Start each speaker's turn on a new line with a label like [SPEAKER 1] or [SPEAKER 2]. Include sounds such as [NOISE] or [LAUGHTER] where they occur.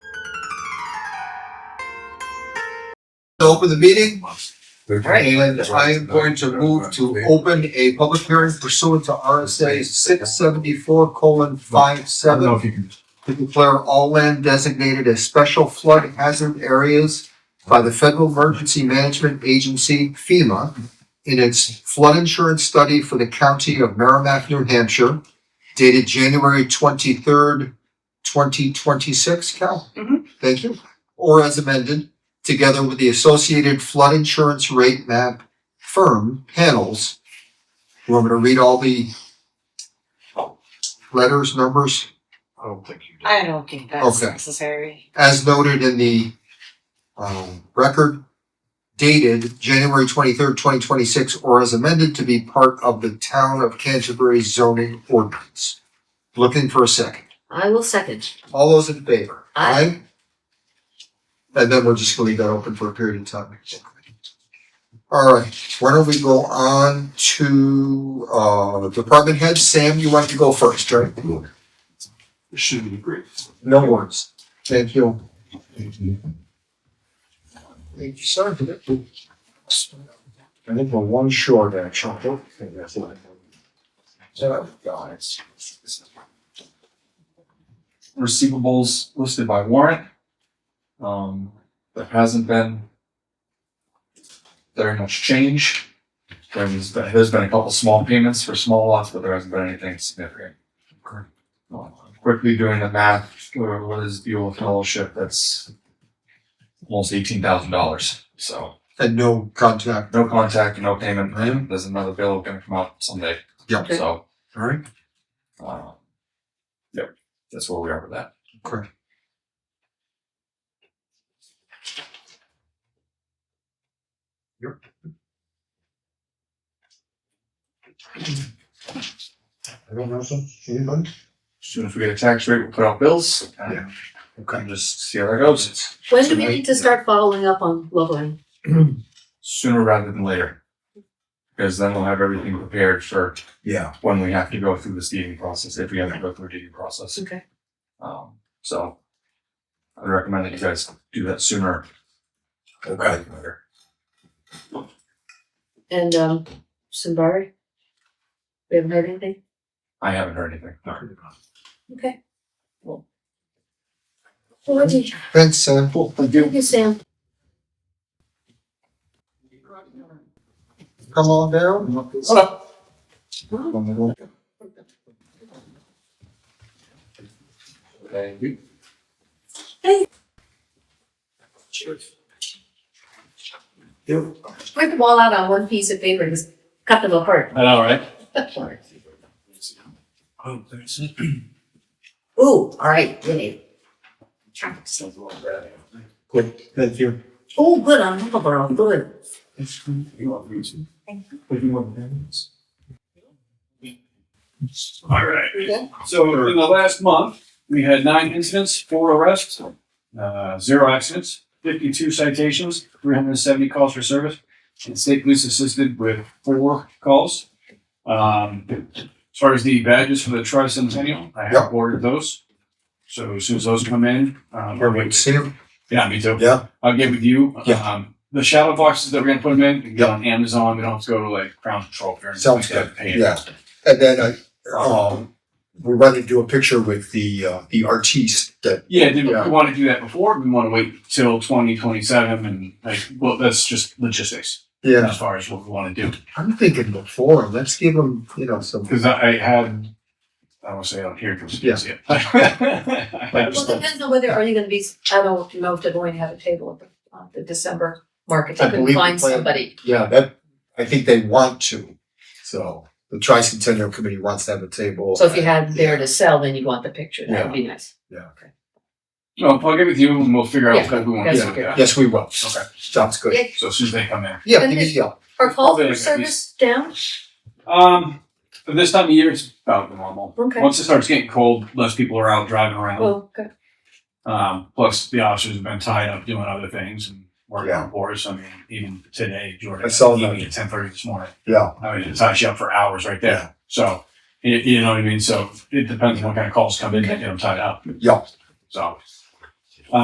[SPEAKER 1] to open the meeting,
[SPEAKER 2] Right.
[SPEAKER 1] and I'm going to move to open a public hearing pursuant to RSA six seventy-four colon five
[SPEAKER 3] I don't know
[SPEAKER 1] seven
[SPEAKER 3] if you can,
[SPEAKER 1] to declare all land designated as special flood hazard areas by the Federal Emergency Management Agency FEMA in its flood insurance study for the county of Merrimack, New Hampshire, dated January twenty-third, twenty twenty-six, Cal?
[SPEAKER 2] Mhm.
[SPEAKER 1] Thank you. Or as amended, together with the associated flood insurance rate map firm panels. You want me to read all the letters, numbers?
[SPEAKER 3] I don't think you
[SPEAKER 2] I don't think that's
[SPEAKER 1] Okay.
[SPEAKER 2] necessary.
[SPEAKER 1] as noted in the um, record dated January twenty-third, twenty twenty-six, or as amended to be part of the town of Canterbury zoning ordinance. Looking for a second.
[SPEAKER 4] I will second.
[SPEAKER 1] All those in favor?
[SPEAKER 4] Aye.
[SPEAKER 1] Aye. And then we're just gonna leave that open for a period of time. All right, why don't we go on to, uh, department head? Sam, you want to go first, right?
[SPEAKER 3] did. Should be brief.
[SPEAKER 1] No words. Thank you. Thank you, sir. I think we're one short, actually. So, guys.
[SPEAKER 3] Receivables listed by warrant. Um, there hasn't been very much change. There's been, there's been a couple small payments for small lots, but there hasn't been anything significant. Um, Quickly doing the math, or what is the old fellowship? That's almost eighteen thousand dollars. So
[SPEAKER 1] And no contact.
[SPEAKER 3] no contact, no payment.
[SPEAKER 1] Right.
[SPEAKER 3] There's another bill gonna come out someday.
[SPEAKER 1] Yeah.
[SPEAKER 3] So
[SPEAKER 1] All right.
[SPEAKER 3] Uh, yep, that's where we are with that.
[SPEAKER 1] Okay. Yep. I don't know, sir. Anybody?
[SPEAKER 3] As soon as we get a tax rate, we'll put out bills. and
[SPEAKER 1] Yeah.
[SPEAKER 3] kind of just see how that goes.
[SPEAKER 4] When do we need to start following up on Loveland?
[SPEAKER 3] Sooner rather than later. Because then we'll have everything prepared for
[SPEAKER 1] Yeah.
[SPEAKER 3] when we have to go through this deeding process, if we have to go through a deeding process.
[SPEAKER 4] Okay.
[SPEAKER 3] Um, so I'd recommend that you guys do that sooner rather than later.
[SPEAKER 4] And um, Simbari? We haven't heard anything?
[SPEAKER 3] I haven't heard anything.
[SPEAKER 4] Okay.
[SPEAKER 3] Well.
[SPEAKER 4] Well, thank
[SPEAKER 1] Thanks, uh, Sam.
[SPEAKER 3] Cool, thank you.
[SPEAKER 4] you, Sam.
[SPEAKER 1] Come on down.
[SPEAKER 3] Hello. Thank you.
[SPEAKER 4] Break them all out on one piece of paper and just cut them apart.
[SPEAKER 3] I know, right?
[SPEAKER 1] Oh, [CLEARS THROAT]
[SPEAKER 4] Ooh, all right, get it.
[SPEAKER 1] Good, thank you.
[SPEAKER 4] Oh, good, on Huckleberry, good.
[SPEAKER 5] All right. So in the last month, we had nine incidents, four arrests, uh, zero accidents, fifty-two citations, three hundred and seventy calls for service. And state police assisted with four calls. Um, as far as the badges for the tricentennial, I
[SPEAKER 1] Yeah.
[SPEAKER 5] have ordered those. So as soon as those come in, um,
[SPEAKER 1] Here, wait, see him?
[SPEAKER 5] yeah, me too.
[SPEAKER 1] Yeah.
[SPEAKER 5] I'll get with you.
[SPEAKER 1] Yeah.
[SPEAKER 5] Um, the shadow boxes that we're gonna put them in, you can get
[SPEAKER 1] Yeah.
[SPEAKER 5] on Amazon, we don't have to go to like Crown Patrol. or anything
[SPEAKER 1] Sounds
[SPEAKER 5] like that,
[SPEAKER 1] good.
[SPEAKER 5] pay it.
[SPEAKER 1] Yeah. And then I, um, we wanted to do a picture with the, uh, the artiste that,
[SPEAKER 5] Yeah, did
[SPEAKER 1] Yeah.
[SPEAKER 5] we want to do that before? We want to wait till twenty twenty seven and like, well, that's just logistics
[SPEAKER 1] yeah,
[SPEAKER 5] as far as what we want to do.
[SPEAKER 1] I'm thinking before, let's give him, you know, some.
[SPEAKER 5] Because I, I had, I want to say on here because you
[SPEAKER 1] Yeah.
[SPEAKER 5] can [LAUGHS] see it. I had-
[SPEAKER 4] Well, depends on whether, are you gonna be, I don't know if they're going to have a table at the, uh, the December market.
[SPEAKER 1] I
[SPEAKER 4] They
[SPEAKER 1] believe the
[SPEAKER 4] couldn't find
[SPEAKER 1] plan-
[SPEAKER 4] somebody.
[SPEAKER 1] Yeah, that, I think they want to, so the tricentennial committee wants to have a table.
[SPEAKER 4] So if you had there to sell, then you'd want the picture. That would be nice.
[SPEAKER 5] No, I'll get with you and we'll figure out what we want to
[SPEAKER 4] that's
[SPEAKER 5] do with
[SPEAKER 4] okay.
[SPEAKER 5] that.
[SPEAKER 1] Yes, we will.
[SPEAKER 5] Okay.
[SPEAKER 1] Sounds good.
[SPEAKER 4] Yeah.
[SPEAKER 5] So as soon as they come in.
[SPEAKER 1] Yeah,
[SPEAKER 4] And
[SPEAKER 1] give me,
[SPEAKER 4] then-
[SPEAKER 1] yeah,
[SPEAKER 4] Are calls
[SPEAKER 5] Probably like
[SPEAKER 4] for
[SPEAKER 5] at
[SPEAKER 4] service down?
[SPEAKER 5] Um, for this time of year, it's about normal.
[SPEAKER 4] Okay.
[SPEAKER 5] Once it starts getting cold, less people are out driving around.
[SPEAKER 4] Well, good.
[SPEAKER 5] Um, plus the officers have been tied up doing other things and working
[SPEAKER 1] Yeah.
[SPEAKER 5] on boards. I mean, even today, Jordan,
[SPEAKER 1] I saw that.
[SPEAKER 5] even at ten thirty this morning.
[SPEAKER 1] yeah,
[SPEAKER 5] I mean, it ties you up for hours right there. So, you, you know what I mean? So it depends on what kind of calls come in that get them tied up.
[SPEAKER 1] yeah.
[SPEAKER 5] So,